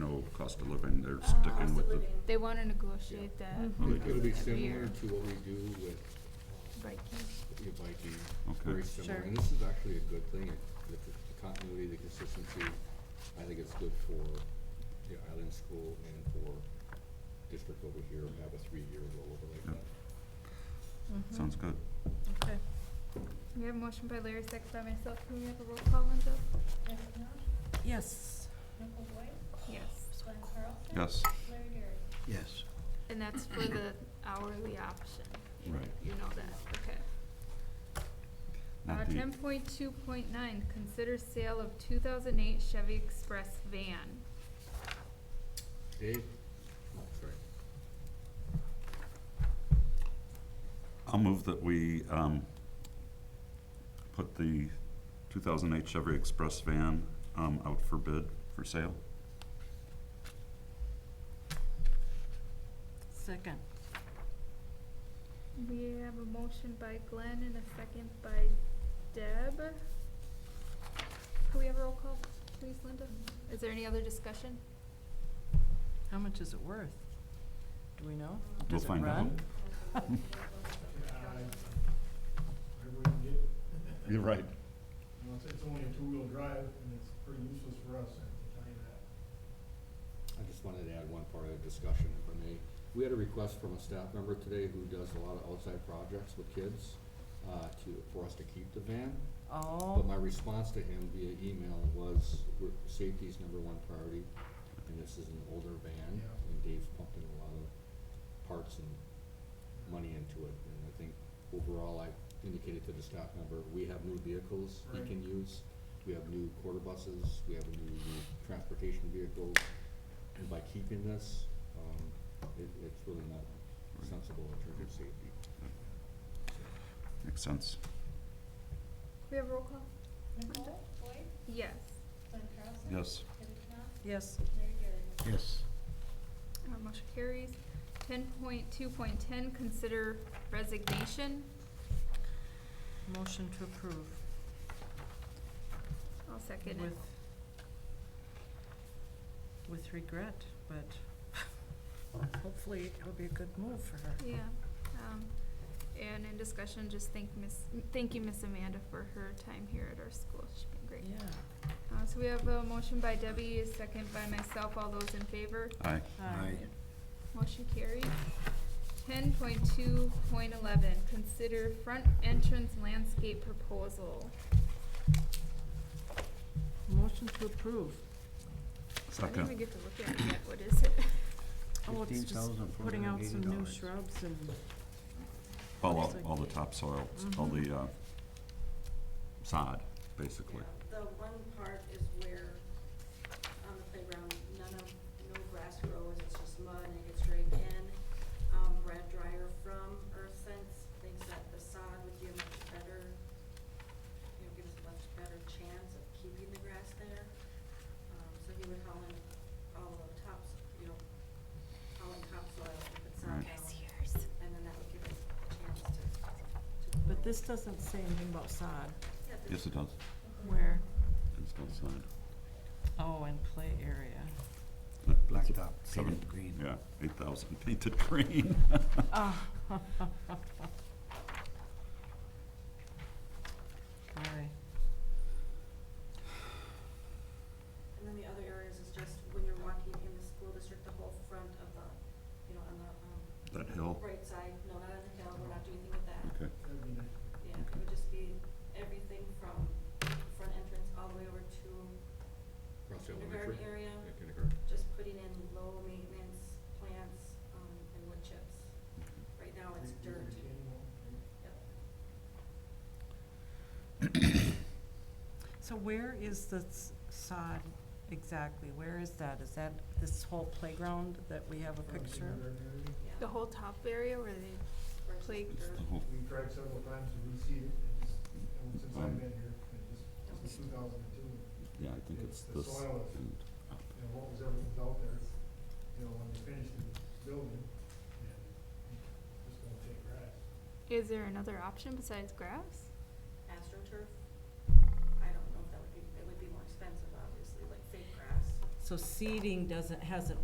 cost of living, they're sticking with the, They wanna negotiate that. Mhm. uh, Mm-hmm. It'll be that similar we're to what we do with breaking. uh, your biking, Okay. very similar. Sure. And this is actually a good thing, It- the c- the continuity, the consistency. I think it's good for the island school and for district over here, have a three-year rollover Yep. like that. sounds good. Okay. We have a motion by Larry, second by myself, can we have a roll call, Linda? Yes. Michael Boyd, Yes. Glenn Carlson, Yes, Larry Gary. Yes. And that's for the hourly option, right. you know that, okay. Uh, Not the- ten point two point nine, consider sale of two thousand eight Chevy Express van. Dave? Oh, sorry. I'll move that we um, put the 2008 Chevy Express van um, out for bid for sale. Second. We have a motion by Glenn and a second by Deb. Can we have a roll call, please, Linda? Is there any other discussion? How much is it worth? Do we know? We'll Does it find out. run? I wouldn't get, You're right. unless it's only a two-wheel drive, and it's pretty useless for us, I can tell you that. I just wanted to add one part of the discussion, if I may. We had a request from a staff member today who does a lot of outside projects with kids, uh, to, for us to keep the van. But Oh, my response to him via email was, we're- safety's number one priority, and this is an older van, Yeah. and Dave's pumped in a lot of parts and money into it, and I think overall, I indicated to the staff member, we have new vehicles he Right. can use, we have new quarter buses, we have a new transportation vehicle, and by keeping this, um, it, it's really not sensible in terms of safety. Makes sense. Can we have a roll call? Michael Boyd, Yes. Glenn Carlson. Yes. Debbie Knopf, yes. Larry Gary. Yes. Our Uh, motion carries. Ten point two point ten, consider resignation. Motion to approve I'll second with, it. with regret, but hopefully it'll be a good move for her. Yeah, um, and in discussion, just thank Miss, thank you, Miss Amanda, for her time here at our school. She's been great. Yeah. Uh, so we have a motion by Debbie, a second by myself. All those in favor? Aye. Aye. Motion carries. Ten point two point eleven, consider front entrance landscape proposal. Motion to approve. I didn't even Second. get to look at it yet. What is it? Oh, it's just putting out some new $15,480. shrubs and, All, all- all the topsoil, all the uh, sod, basically. The one part is where, on the playground, none of, no grass grows, it's just mud and it gets drained in. Um, Brad Dryer from Earth Sense thinks that the sod would give much better, you know, give us a much better chance of keeping the grass there. Um, so he would haul in all the tops, you know, haul in topsoil, put sod Right. down, Nice and then that would give us a chance to, to. but grow. this doesn't say anything about sod. Yeah, Yes, this- it does. Where? It's got sod. Oh, and play area. It's a Blacktop, seven- painted green. Yeah, 8,000 painted green. Ah. Boy. And then the other areas is just when you're walking in the school district, the whole front of the, you know, on the, um, That hill. right side, no, not on the hill, we're not doing anything with that. Okay. That'd be nice. Yeah, it would just be everything from the front entrance all the way over to Across kindergarten elementary, area, yeah, kindergarten. just putting in low maintenance plants, um, and wood chips. Right now, Oh, it's Big- big dirt, retaining wall, right? yep. So where is the s- sod exactly? Where is that? Is that this whole playground that we Oh, have a Front picture of? kindergarten area. yeah. The whole top area where they, versus play- It's dirt. the whole, We've tried several times to reseed it, it just, and since Um, I've been here, it just, since two thousand and two, yeah, I think it's The this soil is- and up. you know, what was everything out there, you know, when they finished the building, and it just won't take grass. is there another option besides grass? AstroTurf, I don't know if that would be, it would be more expensive, obviously, like fake grass. So seeding doesn't, hasn't